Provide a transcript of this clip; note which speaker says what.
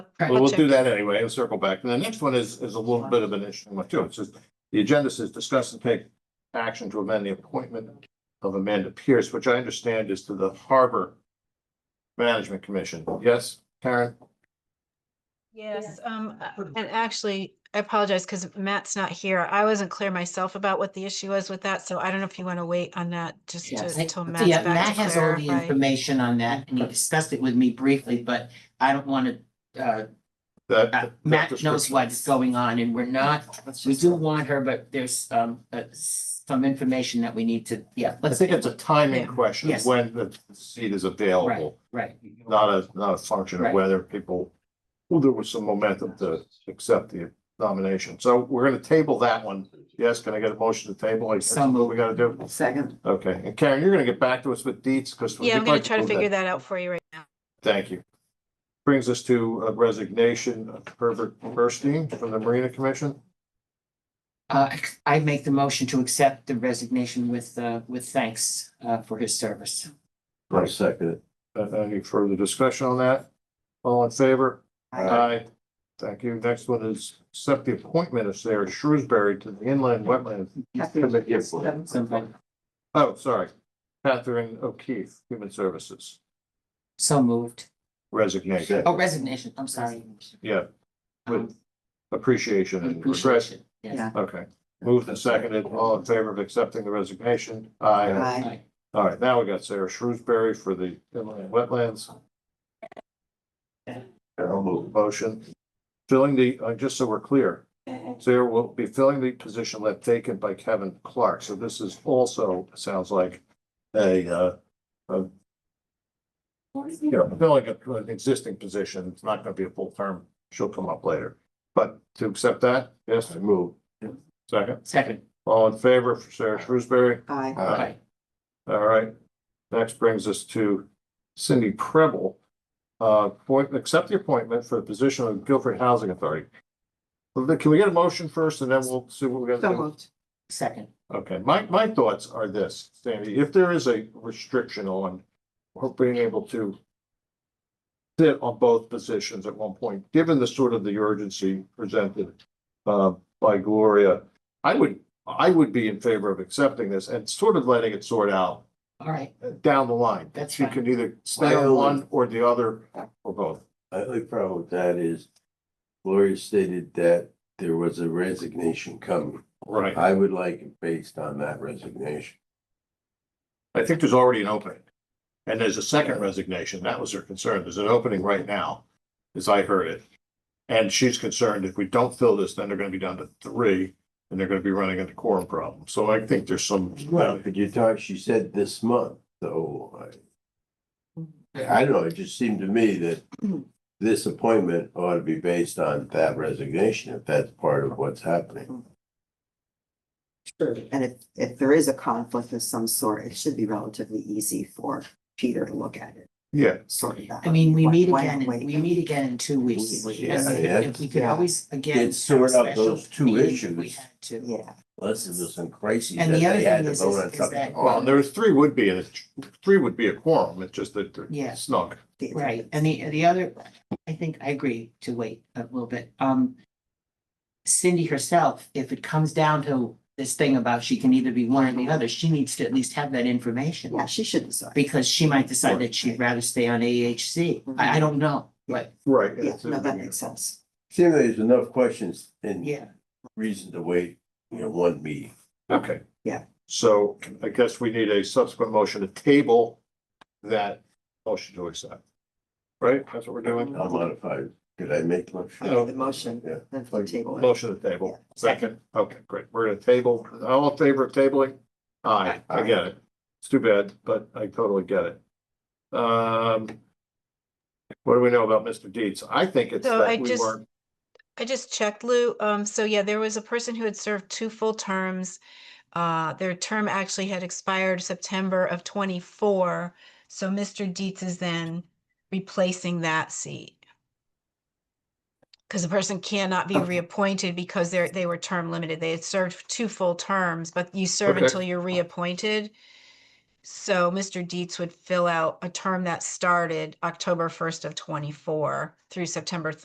Speaker 1: But we'll do that anyway, we'll circle back. And the next one is, is a little bit of an interesting one too. It says, the agenda says discuss and take action to amend the appointment of Amanda Pierce, which I understand is to the Harbor Management Commission. Yes, Karen?
Speaker 2: Yes, um, uh, and actually, I apologize because Matt's not here. I wasn't clear myself about what the issue was with that, so I don't know if you want to wait on that just to,
Speaker 3: Yes, I-
Speaker 2: till Matt's
Speaker 3: yeah,
Speaker 2: back
Speaker 3: Matt
Speaker 2: to
Speaker 3: has all the
Speaker 2: clarify.
Speaker 3: information on that and he discussed it with me briefly, but I don't want to, uh,
Speaker 1: That-
Speaker 3: uh,
Speaker 1: that
Speaker 3: Matt knows
Speaker 1: description-
Speaker 3: what's going on and we're not, we do want her, but there's, um, uh, some information that we need to, yeah,
Speaker 1: I
Speaker 3: let's,
Speaker 1: think it's a timing
Speaker 2: Yeah.
Speaker 1: question,
Speaker 3: Yes.
Speaker 1: when the seat is available,
Speaker 3: right.
Speaker 1: not a, not a function of
Speaker 3: Right.
Speaker 1: whether people, well, there was some momentum to accept the nomination. So we're gonna table that one. Yes, can I get a motion to table? Like,
Speaker 3: So moved.
Speaker 1: We gotta do.
Speaker 3: Second.
Speaker 1: Okay, and Karen, you're gonna get back to us with deets, because.
Speaker 2: Yeah, I'm gonna try to figure that out for you right now.
Speaker 1: Thank you. Brings us to a resignation of Herbert Burstein from the Marina Commission.
Speaker 3: Uh, I make the motion to accept the resignation with, uh, with thanks, uh, for his service.
Speaker 1: I second it. Uh, Any further discussion on that? All in favor? Aye. Thank you. Next one is accept the appointment of Sarah Shrewsbury to the Inland Wetlands.
Speaker 3: Somebody-
Speaker 1: Oh, sorry, Catherine O'Keefe, Human Services,
Speaker 3: So moved.
Speaker 1: resignation,
Speaker 3: Oh, resignation, I'm sorry.
Speaker 1: yeah, uh,
Speaker 3: Um,
Speaker 1: appreciation and regret.
Speaker 3: appreciation, yes.
Speaker 1: Okay, moved and seconded, all in favor of accepting the resignation? Aye.
Speaker 3: Aye.
Speaker 1: All right, now we got Sarah Shrewsbury for the inland wetlands. I'll move. Motion, filling the, uh, just so we're clear, Sarah will be filling the position left vacant by Kevin Clark, so this is also, sounds like a, uh, a you know, filling a- an existing position, it's not gonna be a full term, she'll come up later. But to accept that, yes, I move. Second,
Speaker 3: Second.
Speaker 1: all in favor for Sarah Shrewsbury?
Speaker 4: Uh,
Speaker 1: Aye.
Speaker 3: Aye.
Speaker 1: All right, next brings us to Cindy Preble. Uh, appoint- accept the appointment for the position of Guilford Housing Authority. Well, then, Can we get a motion first and then we'll see what we're gonna do?
Speaker 3: Second.
Speaker 1: Okay, my, my thoughts are this, Sandy, if there is a restriction on her being able to sit on both positions at one point, given the sort of the urgency presented uh, by Gloria, I would, I would be in favor of accepting this and sort of letting it sort out
Speaker 3: All right,
Speaker 1: down the line.
Speaker 3: That's
Speaker 1: You
Speaker 3: fine.
Speaker 1: can either stay on
Speaker 4: Well-
Speaker 1: one or the other or both.
Speaker 4: My only problem with that is Gloria stated that there was a resignation coming.
Speaker 1: Right.
Speaker 4: I would like it based on that resignation.
Speaker 1: I think there's already an opening. And there's a second resignation. That was her concern. There's an opening right now, as I heard it. And she's concerned if we don't fill this, then they're gonna be down to three and they're gonna be running into quorum problems. So I think there's some.
Speaker 4: Well, but you talked, she said this month, so I, I don't know, it just seemed to me that this appointment ought to be based on that resignation, if that's part of what's happening.
Speaker 5: And if, if there is a conflict of some sort, it should be relatively easy for Peter to look at it,
Speaker 1: Yeah,
Speaker 5: sort it out.
Speaker 3: I mean, we
Speaker 5: Why-
Speaker 3: meet
Speaker 5: why
Speaker 3: again, in-
Speaker 5: wait?
Speaker 3: we meet again in two weeks.
Speaker 4: Yeah,
Speaker 3: Yes,
Speaker 4: yeah.
Speaker 3: If we could
Speaker 5: Yeah.
Speaker 3: always again.
Speaker 4: Get sort
Speaker 3: have a
Speaker 4: out those
Speaker 3: special
Speaker 4: two
Speaker 3: meeting if We
Speaker 4: issues.
Speaker 3: had to.
Speaker 5: Yeah,
Speaker 4: Unless it was some crisis that
Speaker 3: And the other
Speaker 4: they had
Speaker 3: thing
Speaker 4: to
Speaker 3: is-
Speaker 4: vote
Speaker 3: is-
Speaker 4: on
Speaker 3: is
Speaker 4: something.
Speaker 3: that-
Speaker 1: well, there's three would be, a three would be a quorum. It's just that
Speaker 3: Yeah.
Speaker 1: they're snug.
Speaker 5: the-
Speaker 3: Right, and the, the other, I think I agree to wait a little bit. Um. Cindy herself, if it comes down to this thing about she can either be one or the other, she needs to at least have that information.
Speaker 5: yeah, she should decide.
Speaker 3: Because she might decide that she'd rather stay on AHC. I, I don't know, but
Speaker 1: Right.
Speaker 5: Yeah, no, that makes sense.
Speaker 4: Seems there's enough questions and
Speaker 3: yeah,
Speaker 4: reason to wait, you know, one meeting.
Speaker 1: Okay.
Speaker 5: Yeah.
Speaker 1: So I guess we need a subsequent motion to table that motion to accept. Right? That's what we're doing?
Speaker 4: I'll modify. it. Could I make one?
Speaker 5: I made the motion,
Speaker 4: Yeah.
Speaker 5: then for the table. it.
Speaker 1: Motion to table. Second. Okay, great. We're gonna table. All in favor of tabling? Aye, I get it. It's too bad, but I totally get it. Um. What do we know about Mr. Deeds? I think it's
Speaker 2: So I
Speaker 1: that we
Speaker 2: just-
Speaker 1: weren't,
Speaker 2: I just checked, Lou. Um, so yeah, there was a person who had served two full terms. Uh, their term actually had expired September of twenty-four. So Mr. Dietz is then replacing that seat. Because the person cannot be
Speaker 3: Okay.
Speaker 2: reappointed because they're, they were term limited. They had served two full terms, but you serve
Speaker 1: Okay.
Speaker 2: until you're reappointed. So Mr. Dietz would fill out a term that started October first of twenty-four through September